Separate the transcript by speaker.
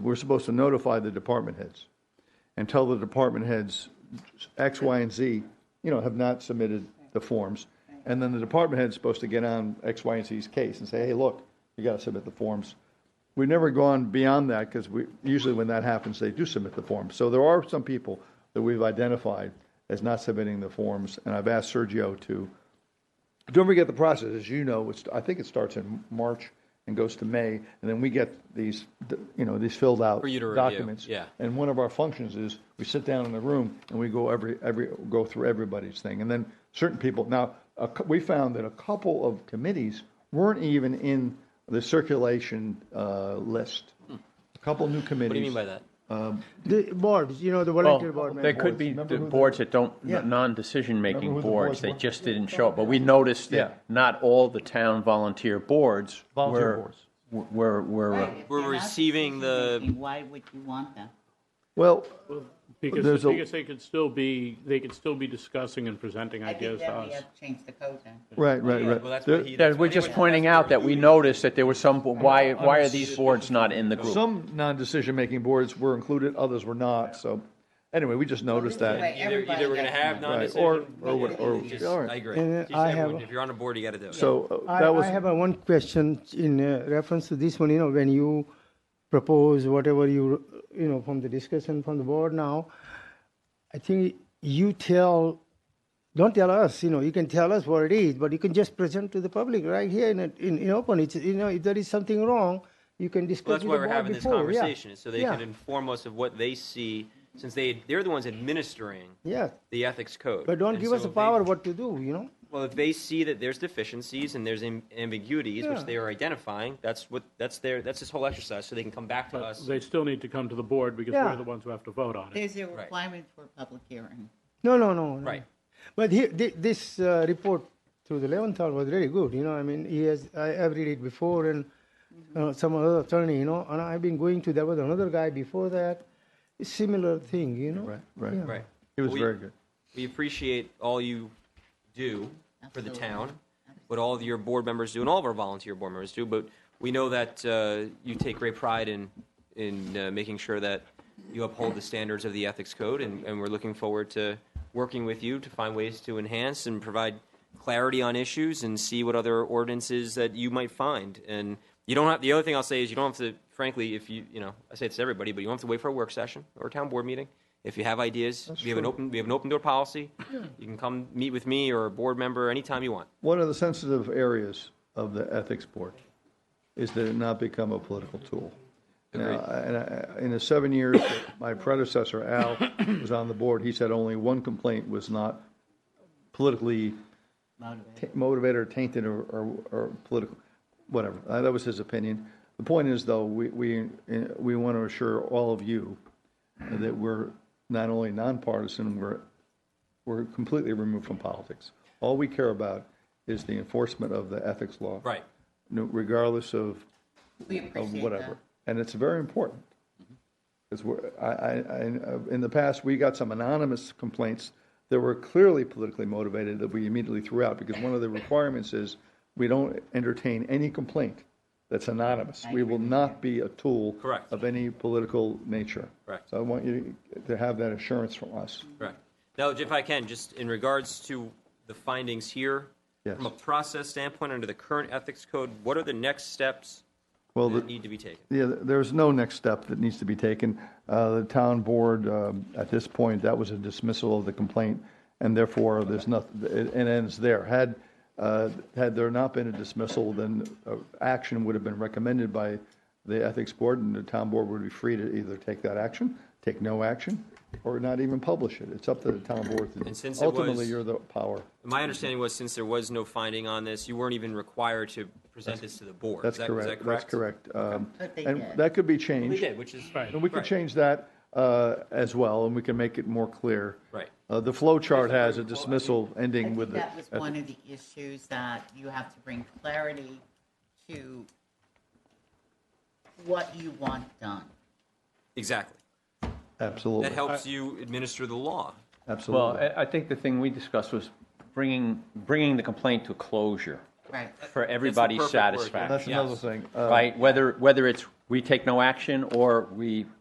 Speaker 1: We're supposed to notify the department heads and tell the department heads X, Y, and Z, you know, have not submitted the forms. And then the department head's supposed to get on X, Y, and Z's case and say, hey, look, you got to submit the forms. We've never gone beyond that because we, usually when that happens, they do submit the forms. So there are some people that we've identified as not submitting the forms. And I've asked Sergio to, don't forget the process, as you know, it's, I think it starts in March and goes to May, and then we get these, you know, these filled out
Speaker 2: you to review,
Speaker 1: documents.
Speaker 2: yeah.
Speaker 1: And one of our functions is we sit down in the room and we go every, every, go through everybody's thing. And then certain people, now, a cou- we found that a couple of committees weren't even in the circulation uh, list. A couple new committees.
Speaker 2: Hmm. What do you mean by that?
Speaker 3: The boards, you know, the
Speaker 1: Oh,
Speaker 3: volunteer board
Speaker 4: There
Speaker 3: members.
Speaker 1: boards.
Speaker 4: could be
Speaker 1: Remember
Speaker 4: the
Speaker 1: who the-
Speaker 4: boards that don't,
Speaker 1: Yeah. Remember who
Speaker 4: non-decision-making
Speaker 1: the boards
Speaker 4: boards, they
Speaker 1: were?
Speaker 4: just didn't show up. But we noticed
Speaker 1: Yeah.
Speaker 4: that not all the town volunteer boards
Speaker 1: Volunteer
Speaker 4: were,
Speaker 1: boards.
Speaker 4: were, were, uh,
Speaker 5: Right, if
Speaker 2: We're
Speaker 5: they're not
Speaker 2: receiving the-
Speaker 5: decision-making, Why would you want them?
Speaker 1: Well,
Speaker 6: Because,
Speaker 1: There's a-
Speaker 6: because they could still be, they could still be discussing and presenting
Speaker 5: I think
Speaker 6: ideas to
Speaker 5: that we
Speaker 6: us.
Speaker 5: have to change the code then.
Speaker 1: right, right, right.
Speaker 2: Well, that's
Speaker 1: There-
Speaker 2: what he.
Speaker 4: that we're just pointing out that we noticed that there was some, why, why are these boards not in the group?
Speaker 1: Some non-decision-making boards were included, others were not, so, anyway, we just noticed
Speaker 5: Well, this is
Speaker 1: that.
Speaker 5: the way
Speaker 2: Either,
Speaker 5: everybody
Speaker 2: either we're gonna
Speaker 5: gets
Speaker 2: have
Speaker 5: it.
Speaker 1: Right,
Speaker 2: non-decision.
Speaker 1: or, or,
Speaker 2: or-
Speaker 1: what- or,
Speaker 2: just-
Speaker 1: all
Speaker 2: I
Speaker 1: right.
Speaker 2: agree.
Speaker 3: And, uh,
Speaker 2: Just
Speaker 3: I
Speaker 2: everyone-
Speaker 3: have-
Speaker 2: If you're on a board, you gotta do it.
Speaker 1: So uh,
Speaker 3: I,
Speaker 1: that
Speaker 3: I
Speaker 1: was,
Speaker 3: have a one question in uh, reference to this one, you know, when you propose whatever you, you know, from the discussion from the board now, I think you tell, don't tell us, you know, you can tell us what it is, but you can just present to the public right here in, a- in, in open. It's, you know, if there is something wrong, you can
Speaker 2: Well,
Speaker 3: discuss
Speaker 2: that's
Speaker 3: with
Speaker 2: why
Speaker 3: the
Speaker 2: we're
Speaker 3: board
Speaker 2: having this
Speaker 3: before, yeah.
Speaker 2: conversation, is so they
Speaker 3: Yeah.
Speaker 2: can inform us of what they see, since they, they're the ones administering
Speaker 3: Yeah,
Speaker 2: the ethics code.
Speaker 3: but don't
Speaker 2: And
Speaker 3: give
Speaker 2: so
Speaker 3: us the
Speaker 2: if they-
Speaker 3: power what to do, you know?
Speaker 2: Well, if they see that there's deficiencies and there's am- ambiguities, which
Speaker 3: Yeah.
Speaker 2: they are identifying, that's what, that's their, that's this whole exercise, so they can come back to
Speaker 6: But
Speaker 2: us.
Speaker 6: they still need to come to the board because
Speaker 3: Yeah.
Speaker 6: we're the ones who have to vote on it.
Speaker 5: There's a requirement for a public hearing.
Speaker 3: No, no, no. no.
Speaker 2: Right.
Speaker 3: But he, thi- this uh, report through the Leventhal was really good. You know, I mean, he has, I, I've read it before and uh, some other attorney, you know, and I've been going to, there was another guy before that, similar thing, you know?
Speaker 1: right, right.
Speaker 3: Yeah.
Speaker 2: Right.
Speaker 1: It was
Speaker 2: We-
Speaker 1: very good.
Speaker 2: We appreciate all you do for the
Speaker 5: Absolutely.
Speaker 2: town, what all of your board members do, and all of our volunteer board members do, but we know that uh, you take great pride in, in uh, making sure that you uphold the standards of the ethics code, and, and we're looking forward to working with you to find ways to enhance and provide clarity on issues and see what other ordinances that you might find. And you don't have, the other thing I'll say is you don't have to, frankly, if you, you know, I say it's to everybody, but you don't have to wait for a work session or a town board meeting. If you have ideas, we have an open, we have an open door policy. You can come meet with me or a board member anytime you want.
Speaker 1: One of the sensitive areas of the ethics board is that it not become a political tool. Now, I- and I- in the seven years that my predecessor, Al, was on the board, he said only one complaint was not politically ta- motivated or tainted or, or, or political, whatever. Uh, That was his opinion. The point is, though, we, we, uh, we want to assure all of you that we're not only nonpartisan, we're, we're completely removed from politics. All we care about is the enforcement of the ethics law.
Speaker 2: Right.
Speaker 1: No- Regardless of
Speaker 5: We
Speaker 1: of
Speaker 5: appreciate that.
Speaker 1: whatever. And it's very important. Because we're, I, I, I, uh, in the past, we got some anonymous complaints that were clearly politically motivated that we immediately threw out, because one of the requirements is we don't entertain any complaint that's anonymous. We will not be a tool.
Speaker 2: Correct.
Speaker 1: Of any political nature.
Speaker 2: Correct.
Speaker 1: So I want you to have that assurance from us.
Speaker 2: Right. Now, if I can, just in regards to the findings here,
Speaker 1: Yes.
Speaker 2: from a process standpoint, under the current ethics code, what are the next steps
Speaker 1: Well,
Speaker 2: that
Speaker 1: the-
Speaker 2: need to be taken?
Speaker 1: Yeah, th- there's no next step that needs to be taken. Uh, The town board, um, at this point, that was a dismissal of the complaint, and therefore, there's nothing, it it ends there. Had, uh, had there not been a dismissal, then uh, action would have been recommended by the ethics board, and the town board would be free to either take that action, take no action, or not even publish it. It's up to the town board. to-
Speaker 2: And since it was-
Speaker 1: Ultimately, you're the power.
Speaker 2: My understanding was, since there was no finding on this, you weren't even required to present this to the board.
Speaker 1: That's
Speaker 2: Is that- is
Speaker 1: correct.
Speaker 2: that
Speaker 1: That's correct. Um,
Speaker 5: But they
Speaker 1: And
Speaker 5: did.
Speaker 1: that could be changed.
Speaker 2: We did, which is.
Speaker 1: And we can
Speaker 2: Right.
Speaker 1: change that uh, as well, and we can make it more clear.
Speaker 2: Right.
Speaker 1: Uh, The flow chart has a dismissal ending with the.
Speaker 5: That was one of the issues that you have to bring clarity to what you want done.
Speaker 2: Exactly. That
Speaker 1: Absolutely,
Speaker 2: helps you administer the law.
Speaker 4: Well,
Speaker 1: absolutely.
Speaker 4: I, I think the thing we discussed was bringing, bringing the complaint to closure
Speaker 5: Right.
Speaker 4: for everybody's
Speaker 2: Uh, perfect word, yeah.
Speaker 4: satisfaction.
Speaker 1: That's
Speaker 2: yes.
Speaker 1: another thing. Uh,
Speaker 4: right? Whether whether it's we take no action or we